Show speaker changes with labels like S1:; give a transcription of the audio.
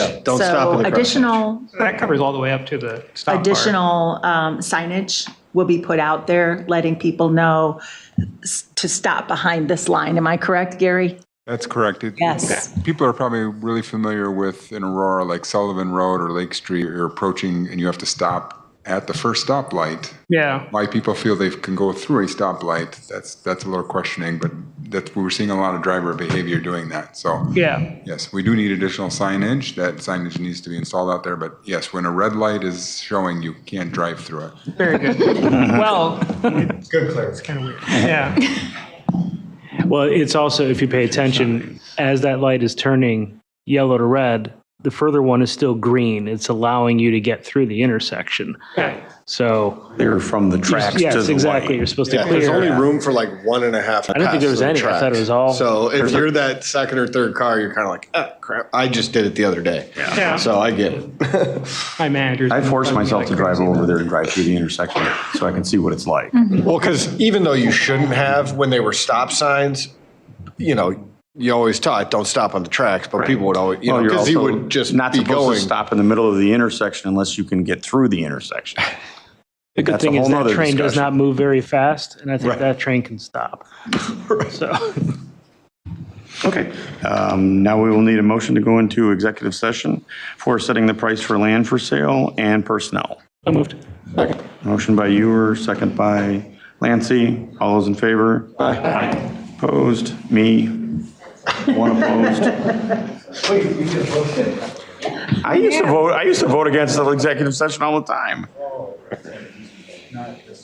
S1: Don't stop at the
S2: So
S1: crosswalk.
S2: additional,
S3: That covers all the way up to the stop bar.
S2: additional um, signage will be put out there, letting people know s- to stop behind this line. Am I correct, Gary?
S4: That's correct. It-
S2: Yes.
S4: People are probably really familiar with in Aurora, like Sullivan Road or Lake Street, you're approaching and you have to stop at the first stoplight.
S3: Yeah,
S4: Why people feel they can go through a stoplight, that's, that's a little questioning, but that's, we're seeing a lot of driver behavior doing that. So
S3: yeah.
S4: yes, we do need additional signage. That signage needs to be installed out there, but yes, when a red light is showing, you can't drive through it.
S3: Very good. Well,
S4: Good clarity.
S3: kind of weird. Yeah,
S5: Well, it's also, if you pay attention, as that light is turning yellow to red, the further one is still green. It's allowing you to get through the intersection.
S3: okay.
S5: So,
S6: They're from the tracks to the
S5: yes, exactly. You're
S6: light.
S5: supposed to
S1: Yeah, there's only
S5: clear.
S1: room for like one and a half. I
S5: don't think there was any. I thought it was all-
S1: So if you're that second or third car, you're kind of like, ah, crap. I just did it the other day.
S3: Yeah.
S1: So I get it.
S3: My manager's.
S6: I force myself to drive over there and drive through the intersection so I can see what it's like.
S1: well, because even though you shouldn't have when they were stop signs, you know, you always taught don't stop on the tracks, but people would always, you know,
S6: Well, you're
S1: because he
S6: also
S1: would just
S6: Not
S1: be
S6: supposed
S1: going.
S6: to stop in the middle of the intersection unless you can get through the intersection.
S5: The good
S6: That's a
S5: thing is
S6: whole
S5: that
S6: nother
S5: train does
S6: discussion.
S5: not move very fast, and I think
S6: Right.
S5: that train can stop. So,
S6: Okay. Um, Now we will need a motion to go into executive session for setting the price for land for sale and personnel.
S5: I moved.
S6: Motion by Ewer, second by Lancy. All those in favor? Aye. Opposed? Me? One opposed? I used to vote, I used to vote against the executive session all the time.